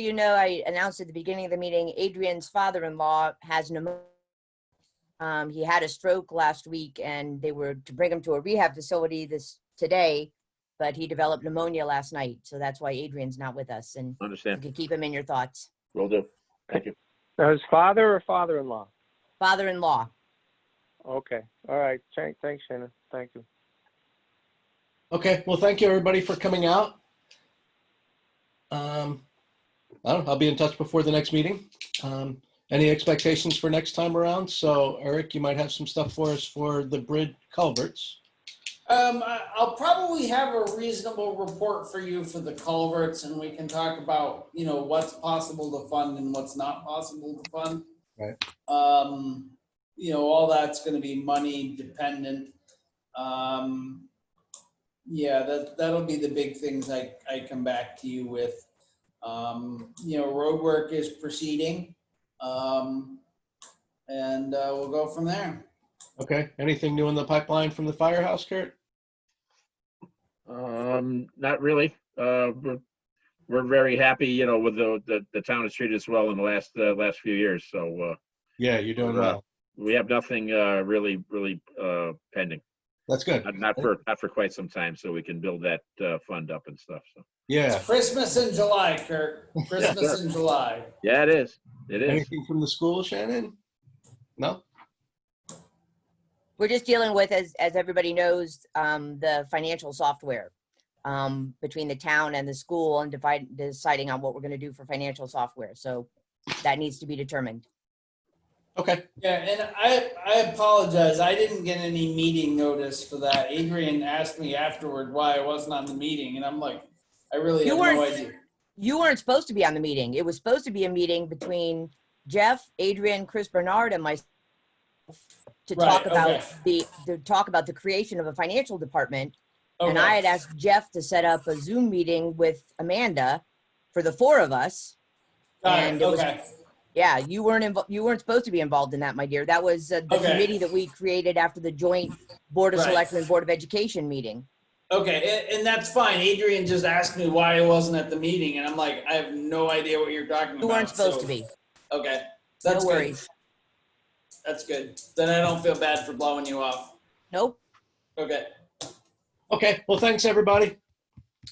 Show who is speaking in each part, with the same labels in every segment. Speaker 1: you know, I announced at the beginning of the meeting, Adrian's father-in-law has pneumonia. Um, he had a stroke last week and they were to bring him to a rehab facility this, today, but he developed pneumonia last night. So that's why Adrian's not with us and you
Speaker 2: Understand.
Speaker 1: can keep him in your thoughts.
Speaker 2: Will do. Thank you.
Speaker 3: Now, his father or father-in-law?
Speaker 1: Father-in-law.
Speaker 3: Okay, all right, Thank- thanks, Shannon, thank you.
Speaker 4: Okay, well, thank you, everybody, for coming out. Um, I don't, know, I'll be in touch before the next meeting. Um, any expectations for next time around? So Eric, you might have some stuff for us for the bridge culverts.
Speaker 5: Um, I- I'll probably have a reasonable report for you for the culverts and we can talk about, you know, what's possible to fund and what's not possible to fund.
Speaker 4: Right.
Speaker 5: Um, you know, all that's gonna be money dependent. Um, yeah, that, that'll be the big things I, I come back to you with. Um, you know, roadwork is proceeding. Um, and, uh, we'll go from there.
Speaker 4: Okay, anything new in the pipeline from the firehouse, Kurt?
Speaker 2: Um, not really. Uh, we're, we're very happy, you know, with the, the, the town has treated us well in the last, uh, last few years. So, uh,
Speaker 4: Yeah, you're doing well.
Speaker 2: we have nothing, uh, really, really, uh, pending.
Speaker 4: That's good.
Speaker 2: Not- Not for, not for quite some time, so we can build that, uh, fund up and stuff. So,
Speaker 4: Yeah.
Speaker 5: It's Christmas in July, Kirk. Christmas in July.
Speaker 2: yeah, it is. It is.
Speaker 4: Anything from the school, Shannon? No?
Speaker 1: We're just dealing with, as, as everybody knows, um, the financial software um, between the town and the school and divide, deciding on what we're going to do for financial software. So that needs to be determined.
Speaker 4: Okay,
Speaker 5: Yeah, and I, I apologize. I didn't get any meeting notice for that. Adrian asked me afterward why I wasn't on the meeting and I'm like, I really
Speaker 1: You
Speaker 5: have no
Speaker 1: weren't-
Speaker 5: idea.
Speaker 1: you weren't supposed to be on the meeting. It was supposed to be a meeting between Jeff, Adrian, Chris Bernard, and myself to
Speaker 5: Right,
Speaker 1: talk about
Speaker 5: okay.
Speaker 1: the, to talk about the creation of a financial department. And
Speaker 5: Okay.
Speaker 1: I had asked Jeff to set up a Zoom meeting with Amanda for the four of us.
Speaker 5: Got it,
Speaker 1: and it was-
Speaker 5: okay.
Speaker 1: Yeah, you weren't involved, you weren't supposed to be involved in that, my dear. That was uh, the
Speaker 5: Okay.
Speaker 1: committee that we created after the joint Board of
Speaker 5: Right.
Speaker 1: Selectmen, Board of Education meeting.
Speaker 5: Okay, and, and that's fine. Adrian just asked me why I wasn't at the meeting and I'm like, I have no idea what you're talking about.
Speaker 1: You weren't supposed
Speaker 5: so-
Speaker 1: to be.
Speaker 5: Okay.
Speaker 1: No
Speaker 5: That's good.
Speaker 1: worries.
Speaker 5: That's good. Then I don't feel bad for blowing you off.
Speaker 1: Nope.
Speaker 5: Okay.
Speaker 4: okay. Well, thanks, everybody.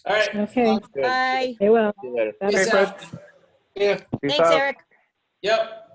Speaker 5: All right.
Speaker 6: Okay,
Speaker 2: Good.
Speaker 1: Bye.
Speaker 6: they will.
Speaker 2: See you later.
Speaker 6: That's-
Speaker 5: Peace out.
Speaker 4: Yeah.
Speaker 3: Peace
Speaker 1: Thanks,
Speaker 3: out.
Speaker 1: Eric.
Speaker 5: Yep.